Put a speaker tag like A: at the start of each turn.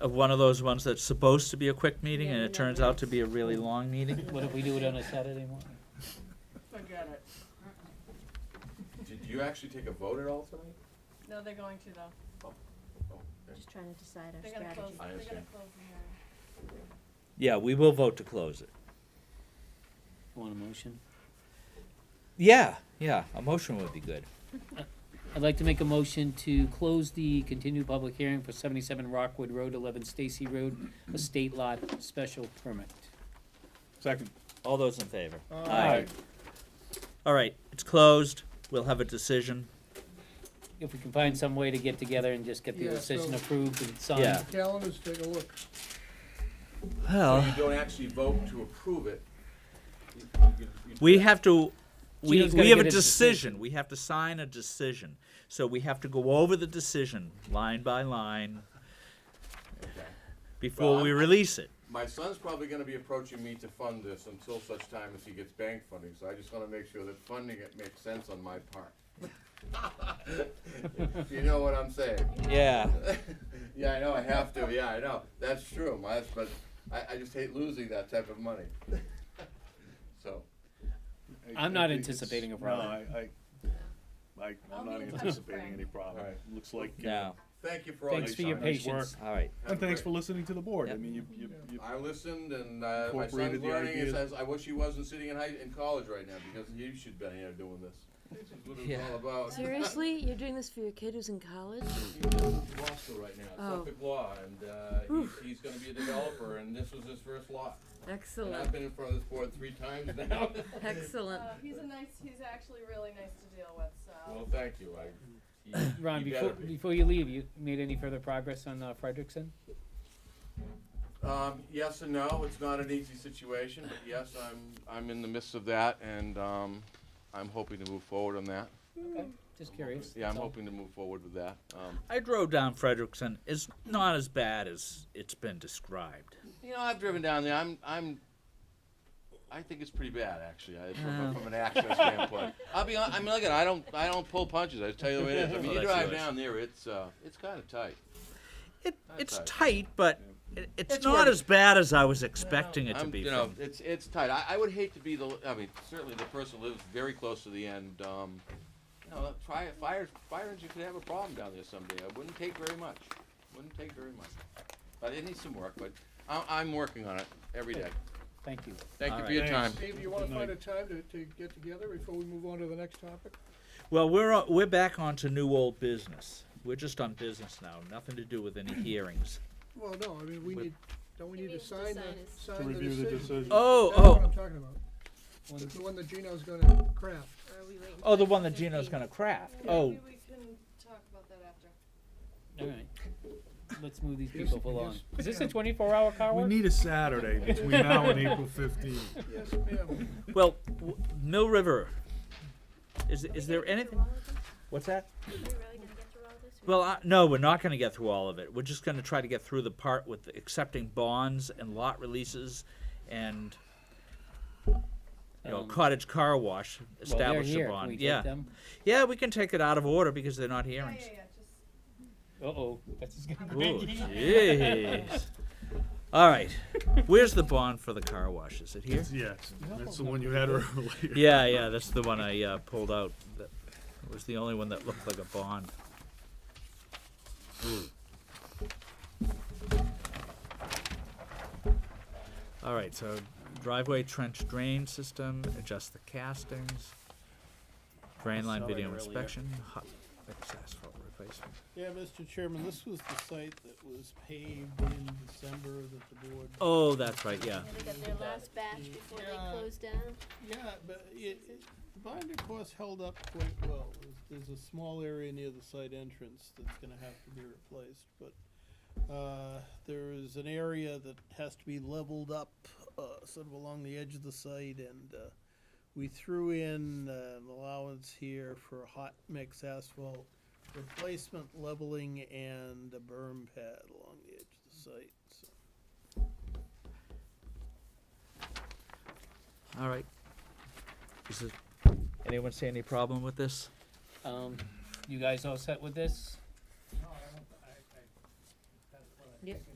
A: of one of those ones that's supposed to be a quick meeting and
B: Yeah,
A: it
B: no,
A: turns
B: no.
A: out to be a really long meeting?
C: What if we do it on a Saturday morning?
B: Forget it.
D: Did you actually take a vote at all tonight?
B: No, they're going to though.
E: Just trying to decide our
B: They're gonna close,
E: strategy.
B: they're
D: I
B: gonna close
D: understand.
B: the hearing.
A: Yeah, we will vote to close it.
C: Want a motion?
A: Yeah, yeah, a motion would be good.
C: I'd like to make a motion to close the continued public hearing for seventy-seven Rockwood Road, eleven Stacy Road, estate lot special permit.
F: Second.
A: All those in favor?
C: Aye.
A: All right, it's closed. We'll have a decision.
C: If we can find some way to get together and just get the
G: Yeah,
C: decision
G: so-
C: approved and signed.
A: Yeah.
G: Calendars, take a look.
D: So
A: Well,
D: you don't actually vote to approve it? You- you- you-
A: we have to, we,
C: Gino's
A: we
C: gotta
A: have a
C: get his decision.
A: decision. We have to sign a decision. So we have to go over the decision line by line
D: Okay.
A: before
D: Well,
A: we
D: I'm-
A: release it.
D: My son's probably gonna be approaching me to fund this until such time as he gets bank funding, so I just wanna make sure that funding it makes sense on my part. If You know what I'm saying?
A: Yeah.
D: Yeah, I know, I have to, yeah, I know, that's true, my, but I, I just hate losing that type of money. So,
C: I'm not
F: I- I-
C: anticipating a
F: it's-
C: problem.
F: No, I, I, I,
B: I'll
F: I'm
B: be in
F: not
B: touch with
F: anticipating
B: Frank.
F: any problem.
D: Alright.
F: Looks like. uh,
A: Yeah,
D: thank you for all your time.
C: Thanks for your
F: Nice patience.
C: patience.
A: all right.
D: Have a
F: And thanks
D: great-
F: for listening to the board. I
A: Yep.
F: mean, you, you, you,
D: I listened, and uh, my
F: Incorporated
D: son's
F: the
D: learning. He
F: ideas.
D: says, "I wish he wasn't sitting in high in college right now because he should been here doing this." This is what it was
A: Yeah.
D: all about.
E: Seriously, you're doing this for your kid who's in college?
D: He's in law school right now,
E: Oh.
D: Suffolk Law, and uh, he's, he's going to be a developer. And this was his first lot. And I've
E: Excellent,
D: been in front of this board three times now.
E: excellent.
B: Uh, he's a nice, he's actually really nice to deal with, so.
D: well, thank you. I, he,
C: Ron,
D: he
C: before,
D: better be.
C: before you leave, you made any further progress on uh, Frederickson?
D: Um, yes and no. It's not an easy situation, but yes, I'm I'm in the midst of that, and um, I'm hoping to move forward on that.
C: Just curious.
D: Yeah, I'm
C: that's all.
D: hoping to move forward with that. Um,
A: I drove down Frederickson. It's not as bad as it's been described.
D: You know, I've driven down there. I'm, I'm. I think it's pretty bad, actually. I,
A: Oh.
D: from, from an access standpoint, I'll be. hon- I mean, look at. I don't. I don't pull punches. I just tell you the way it is. I mean,
A: Well,
D: you
A: Oh, that's
D: drive
A: nice.
D: down there. It's. Uh, it's kind of tight.
A: It, it's
D: tight.
A: tight, but it, it's,
D: It's
A: not
D: working.
A: as bad as I was expecting it to
D: I'm,
A: be.
D: you know,
A: from-
D: it's it's tight. I, I would hate to be the. I mean, certainly the person who lives very close to the end. Um, you know, try a fire. Fire engine could have a problem down there someday. It wouldn't take very much. Wouldn't take very much. But it needs some work. But I, I'm working on it every day.
C: Thank you.
D: Thank
A: All
D: you
A: right.
D: for your time.
F: Thanks.
G: Steve, you wanna
F: Good night.
G: find a time to, to get together before we move on to the next topic?
A: well, we're on, we're back onto new old business. We're just on business now. Nothing to do with any hearings.
G: Well, no, I mean, we
A: With-
G: need, don't we
E: He
G: need to
E: needs to
G: sign the,
E: sign it. To
G: sign
F: to
G: the
F: review the decision.
A: Oh,
G: That's what
A: oh,
G: I'm talking about.
C: One-
G: The one that Gino's gonna craft.
E: Or are we waiting
A: oh, the
E: for
A: one that
E: 15?
A: Gino's gonna craft.
B: Maybe
A: Oh,
B: we can talk about that after.
C: All right. Let's move these
G: Yes,
C: people along.
G: yes.
C: Is this a twenty-four hour
B: Oh,
C: car
F: We
C: work?
F: need a Saturday between now and April fifteenth.
G: Yes, ma'am.
A: well, w- Mill River. Is
E: Are we
A: is
E: gonna
A: there
E: get through
A: anything?
E: all of this?
A: What's that?
E: Are we really gonna get through all of this?
A: Well, I, no, we're not going to get through all of it. We're just going to try to get through the part with the accepting bonds and lot releases, and you know,
C: Um,
A: cottage car wash
C: Well, they're
A: establish
C: here.
A: a
C: Can
A: bond.
C: we take
A: yeah,
C: them?
A: yeah, we can take it out of order because they're not
B: Yeah,
A: hearings.
B: yeah, yeah, just.
C: Uh-oh, that's just gonna
A: Oh,
C: be.
A: jeez. All right, where's the bond for the car wash? Is it here?
F: Yes, that's the one you had earlier.
A: Yeah, yeah, that's the one I uh, pulled out. That was the only one that looked like a bond. All right, so driveway trench drain system, adjust the castings, drain line
H: Saw it
A: video
H: earlier.
A: inspection, hot mix asphalt replacement.
H: Yeah, Mr. Chairman, this was the site that was paved in December that the board.
A: Oh, that's right, yeah.
E: They got their last batch before
H: Yeah.
E: they closed down.
H: Yeah, but it, it, the binder course held up quite well. There's, there's a small area near the site entrance that's gonna have to be replaced, but, uh, there is an area that has to be leveled up, uh, sort of along the edge of the site and, uh, we threw in uh, an allowance here for hot mix asphalt replacement leveling and a berm pad along the edge of the site, so.
A: All right. Is it, anyone see any problem with this?
C: Um, you guys all set with this?
E: Yep.